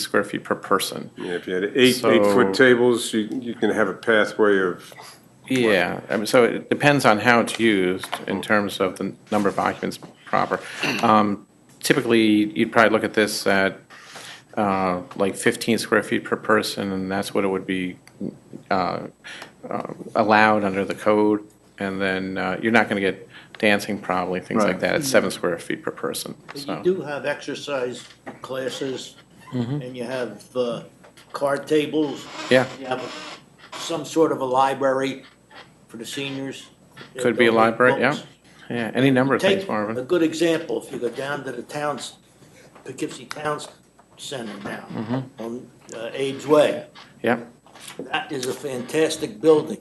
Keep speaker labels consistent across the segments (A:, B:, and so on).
A: square feet per person.
B: Yeah, if you had eight,
A: So-
B: eight-foot tables, you, you can have a pathway of,
A: Yeah, I mean, so it depends on how it's used in terms of the number of occupants proper. Um, Typically, you'd probably look at this at uh, like 15 square feet per person, and that's what it would be uh, uh, allowed under the code. And then uh, you're not going to get dancing probably, things like
C: Right.
A: that, at seven square feet per person,
D: You
A: so. Mm-hmm.
D: do have exercise classes, and you have uh, card tables,
A: Yeah,
D: you have some sort of a library for the seniors.
A: could be a
D: They'll read
A: library, yeah,
D: books.
A: yeah, any number of things,
D: Take
A: Marvin.
D: a good example, if you go down to the towns, Poughkeepsie Towns Center now,
A: Mm-hmm.
D: on uh, Abe's Way.
A: Yeah,
D: That is a fantastic building.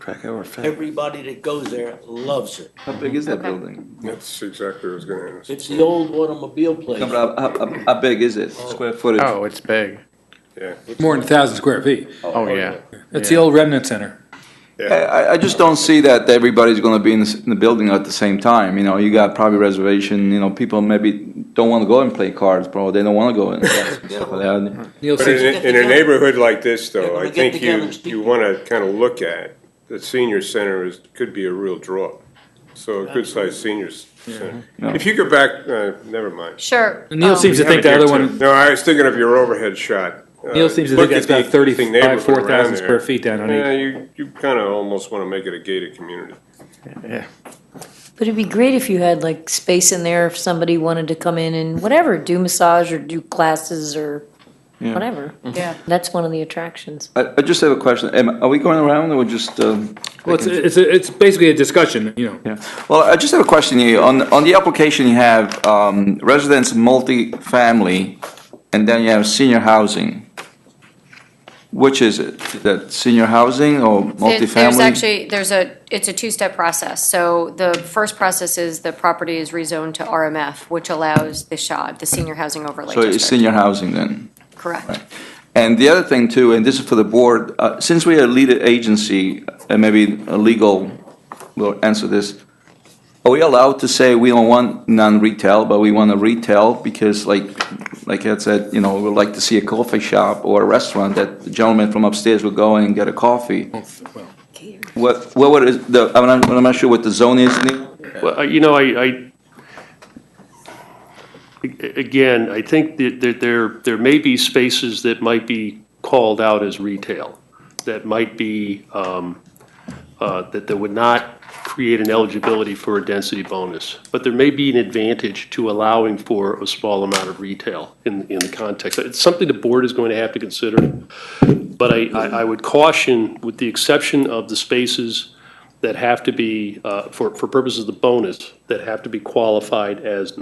C: Crack our fat.
D: Everybody that goes there loves it.
C: How big is that building?
B: that's exactly what I was gonna ask.
D: It's the old automobile place.
C: No, but how, how, how- how big is it? Square footage?
A: oh, it's big,
B: Yeah,
E: More than 1,000 square feet.
A: oh, yeah.
E: It's the old Remnant Center.
C: I, I- I just don't see that everybody's gonna be in the, in the building at the same time, you know, you got probably reservation, you know, people maybe don't wanna go and play cards, bro, they don't wanna go and stuff like that.
E: You'll
B: but
E: see,
B: in, a- in a neighborhood like this,
D: They're
B: though,
D: gonna
B: I
D: get
B: think
D: together
B: you,
D: and speak.
B: you wanna kinda look at, the senior center is, could be a real draw. So a good-sized seniors center.
C: No.
B: If you go back, uh, never mind.
F: Sure.
E: Neil
F: um,
E: seems to
B: Oh, We have
E: think
B: it
E: the
B: here,
E: other
B: too.
E: one,
B: No, I was thinking of your overhead shot. Uh,
E: Neil seems to
B: look
E: think that's
B: at the
E: about 35,
B: neighborhood around
E: 4,000
B: there.
E: square feet down on
B: Yeah,
E: it.
B: you, you kinda almost wanna make it a gated community.
A: Yeah.
F: But it'd be great if you had like space in there if somebody wanted to come in and whatever, do massage or do classes or whatever.
G: Yeah.
F: That's one of the attractions.
C: I, I just have a question, Am- are we going around or just, um?
E: Well, it's, it's, it's basically a discussion, you know.
C: Yeah, well, I just have a question here. On, on the application, you have um, residence multifamily, and then you have senior housing. Which is it? Is that senior housing or
G: There-
C: multifamily?
G: There's actually, there's a, it's a two-step process. So the first process is the property is rezoned to RMF, which allows the SHOD, the Senior Housing Overlay
C: So it's
G: District.
C: senior housing then?
G: Correct.
C: And the other thing too, and this is for the board, uh, since we are a lead agency, and maybe a legal will answer this, are we allowed to say we don't want non-retail, but we want a retail? Because like, like Ed said, you know, we'd like to see a coffee shop or a restaurant that the gentleman from upstairs will go in and get a coffee. What, what would, is the, I'm not, I'm not sure what the zone is, Neil.
H: Well, I- you know, I, I, a- again, I think that that there, there may be spaces that might be called out as retail, that might be, um, uh, that, that would not create an eligibility for a density bonus. But there may be an advantage to allowing for a small amount of retail in, in the context. It's something the board is going to have to consider. But I, I, I would caution, with the exception of the spaces that have to be, uh, for, for purposes of the bonus, that have to be qualified as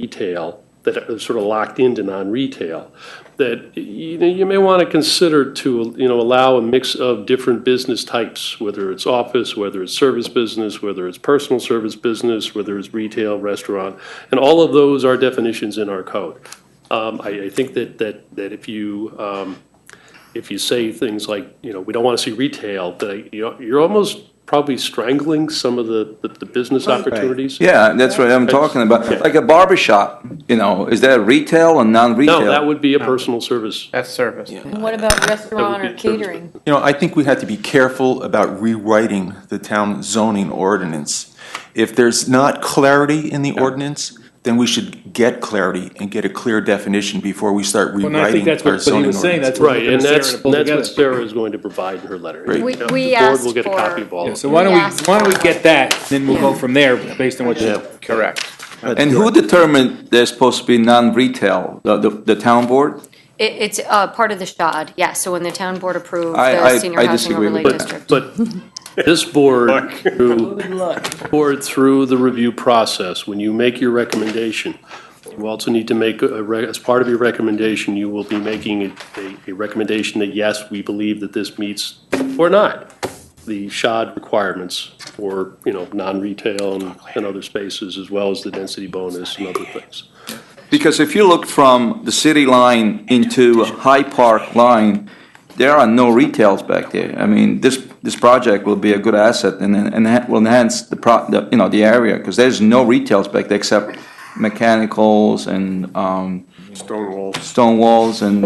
H: non-retail, that are sort of locked into non-retail, that, you know, you may want to consider to, you know, allow a mix of different business types, whether it's office, whether it's service business, whether it's personal service business, whether it's retail, restaurant, and all of those are definitions in our code. Um, I, I think that, that, that if you, um, if you say things like, you know, we don't want to see retail, that, you know, you're almost probably strangling some of the, the- the business opportunities.
C: Yeah, that's what I'm talking about. Like a barber shop, you know, is that retail or non-retail?
H: No, that would be a personal service.
A: That's service.
F: And what about restaurant
H: be
F: or
H: a service
F: catering?
I: You know, I think we had to be careful about rewriting the town zoning ordinance. If there's not clarity in the ordinance, then we should get clarity and get a clear definition before we start
E: Well, and I
I: rewriting
E: think that's
I: our
E: what, what he
I: zoning
E: was saying,
I: ordinance.
E: that's what
H: Right,
E: we're
H: and
E: gonna
H: that's,
E: Sarah to pull
H: that's what
E: together.
H: Sarah is going to provide in her letter.
I: Great.
G: We-
H: You know,
G: we
H: the board will
G: asked
H: get a
G: for-
H: copy of all
E: Yeah,
H: of
E: So
H: it.
E: why don't we,
G: We asked
E: why don't we
G: for-
E: get that, then we'll go from there, based on what you,
H: Yeah.
A: Correct.
C: And who determined they're supposed to be non-retail? The, the, the town board?
G: It, it's, uh, part of the SHOD, yeah, so when the town board approved
C: I-
G: the
C: I-
G: Senior
C: I
G: Housing
C: disagree
G: Overlay
C: with
G: District.
H: But this board, through, board through the review process, when you make your recommendation, you also need to make, a re- as part of your recommendation, you will be making a- a, a recommendation that, yes, we believe that this meets or not the SHOD requirements for, you know, non-retail and, and other spaces, as well as the density bonus and other things.
C: Because if you look from the city line into High Park line, there are no retails back there. I mean, this, this project will be a good asset and, and that will enhance the pro, the, you know, the area, because there's no retails back there except mechanicals and, um,
B: Stone walls.
C: stone walls and